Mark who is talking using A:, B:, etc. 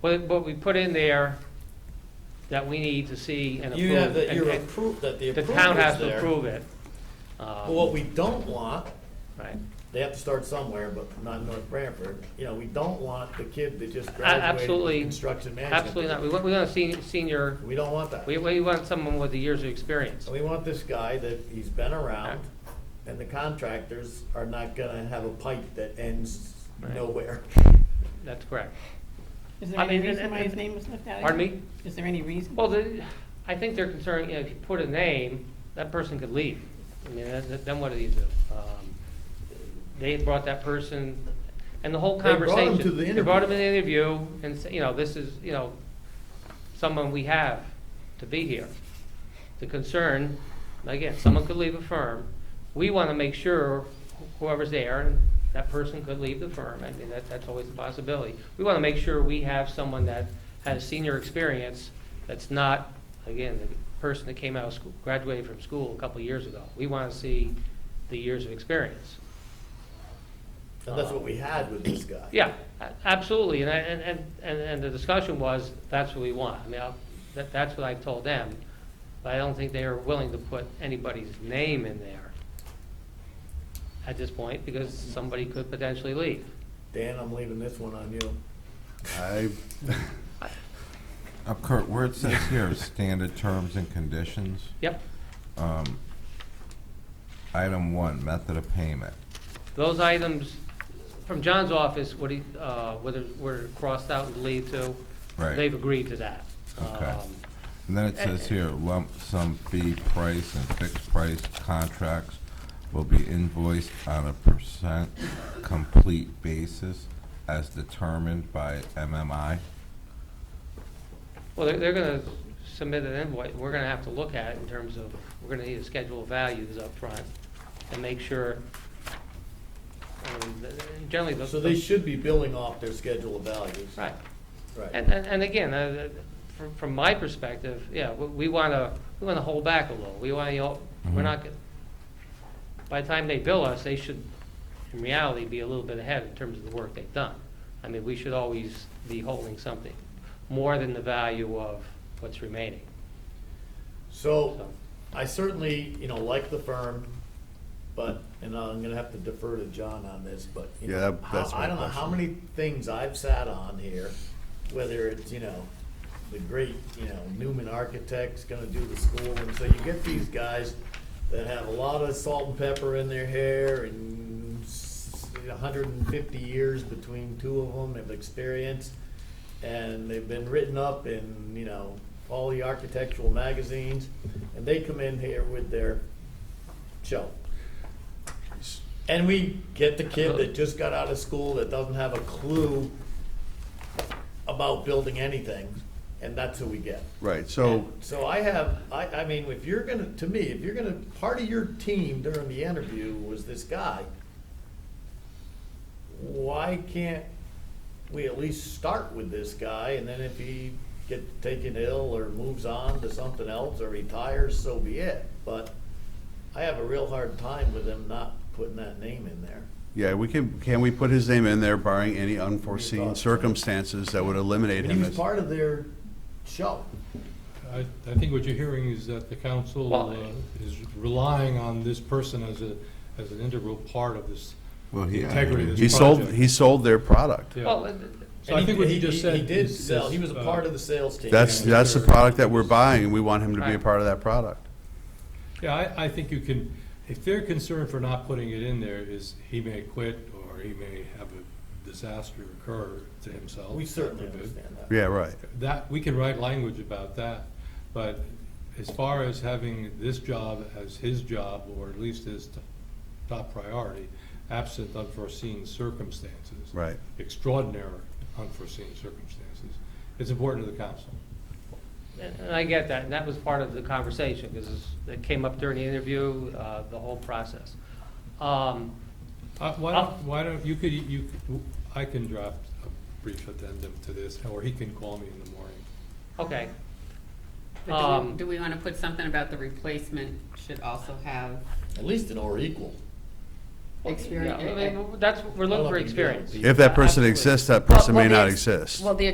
A: what, what we put in there that we need to see and approve.
B: You have, that
A: and-
B: you're
A: and
B: approved, that the
A: The
B: approval
A: town has
B: is
A: to
B: there.
A: approve it. Um,
B: But what we don't want,
A: Right.
B: they have to start somewhere, but not in North Branford, you know, we don't want the kid that just
A: A-
B: graduated
A: Absolutely.
B: from construction management.
A: Absolutely not. We want, we want a senior, senior,
B: We don't want that.
A: we, we want someone with the years of experience.
B: We want this guy that he's been around, and the contractors are not gonna have a pipe that ends
A: Right.
B: nowhere.
A: That's correct.
C: Is there
A: I
C: any
A: mean, and-
C: reason why
A: and-
C: his name was left out?
A: Pardon me?
C: Is there any reason?
A: Well, the, I think they're concerned, you know, if you put a name, that person could leave. I mean, that- that- then what do you do? Um, They brought that person, and the whole
B: They brought him
A: conversation.
B: to the
A: They brought him in the interview and, say, you know, this is, you know, someone we have to be here. The concern, again, someone could leave a firm. We want to make sure whoever's there, and that person could leave the firm. I mean, that, that's always a possibility. We want to make sure we have someone that has senior experience that's not, again, the person that came out of school, graduated from school a couple of years ago. We want to see the years of experience.
B: And that's what we had with this guy.
A: Yeah, a- absolutely, and I, and, and, and and the discussion was, that's what we want, I mean, I'll- that, that's what I told them, but I don't think they are willing to put anybody's name in there at this point, because somebody could potentially leave.
B: Dan, I'm leaving this one on you.
D: I, up Uh, Kurt, where it says here, standard terms and conditions,
A: Yep,
D: um, item one, method of payment.
A: those items from John's office, what he, uh, whether, were crossed out and deleted to.
D: Right.
A: They've agreed to that.
D: Okay.
A: Um,
D: And then it says here, lump sum fee price and fixed price contracts will be invoiced on a percent complete basis as determined by MMI.
A: Well, they're, they're gonna submit an invoice, we're gonna have to look at it in terms of, we're gonna need to schedule of values up front and make sure, I mean, th- th- generally those.
B: So they should be billing off their schedule of values.
A: Right,
B: Right.
A: and, and, and again, uh, th- from, from my perspective, yeah, we, we wanna, we wanna hold back a little, we wanna, you know, we're
D: Mhm.
A: not, gonna- by the time they bill us, they should, in reality, be a little bit ahead in terms of the work they've done. I mean, we should always be holding something more than the value of what's remaining,
B: So
A: so.
B: I certainly, you know, like the firm, but, and I'm gonna have to defer to John on this, but, you know,
E: Yeah, that-
B: how-
E: that's my
B: I don't know how
E: question.
B: many things I've sat on here, whether it's, you know, the great, you know, Newman Architects gonna do the school, and so you get these guys that have a lot of salt and pepper in their hair and hundred and fifty years between two of them of experience, and they've been written up in, you know, all the architectural magazines, and they come in here with their show. And we get the kid that just got out of school that doesn't have a clue about building anything, and that's who we get.
E: Right, so,
B: So I have, I, I mean, if you're gonna, to me, if you're gonna, part of your team during the interview was this guy, why can't we at least start with this guy, and then if he get taken ill or moves on to something else or retires, so be it. But I have a real hard time with him not putting that name in there.
E: yeah, we can, can we put his name in there barring any
B: Your
E: unforeseen
B: thoughts?
E: circumstances that would eliminate
B: And
E: him
B: he was
E: as?
B: part of their show.
F: I, I think what you're hearing is that the council
A: Well-
F: uh, is relying on this person as a, as an integral part of this.
D: Well, he-
F: Integrity of
E: He
F: this
E: sold,
F: project.
E: he sold their product.
F: Yeah.
A: Well, uh,
F: So I think what
B: he
F: you just said.
B: He did
F: is-
B: sell, he
F: is,
B: was a
F: uh,
B: part of the sales team.
E: That's,
F: Yeah.
E: that's the product that we're buying, and we want him to be a
A: Right.
E: part of that product.
F: Yeah, I, I think you can, if their concern for not putting it in there is he may quit or he may have a disaster occur to himself.
B: We certainly
F: God forbid.
B: understand that.
E: Yeah, right.
F: That, we can write language about that, but as far as having this job as his job, or at least his t- top priority, absent unforeseen circumstances.
E: Right.
F: Extraordinary unforeseen circumstances, it's important to the council.
A: and and I get that, and that was part of the conversation, because it came up during the interview, uh, the whole process. Um,
F: Uh, Why
A: I'll-
F: don't, why don't, you could, you, could- I can draft a brief addendum to this, or he can call me in the morning.
A: Okay,
G: But do
A: Um,
G: we, do we wanna put something about the replacement should also have
B: At least an or equal.
A: yeah, I
G: experience?
A: mean, that's, we're looking for experience.
E: If that person
A: Absolutely.
E: exists, that person
G: Well,
E: may
G: well,
E: not
G: the ex-
E: exist.
G: Well, the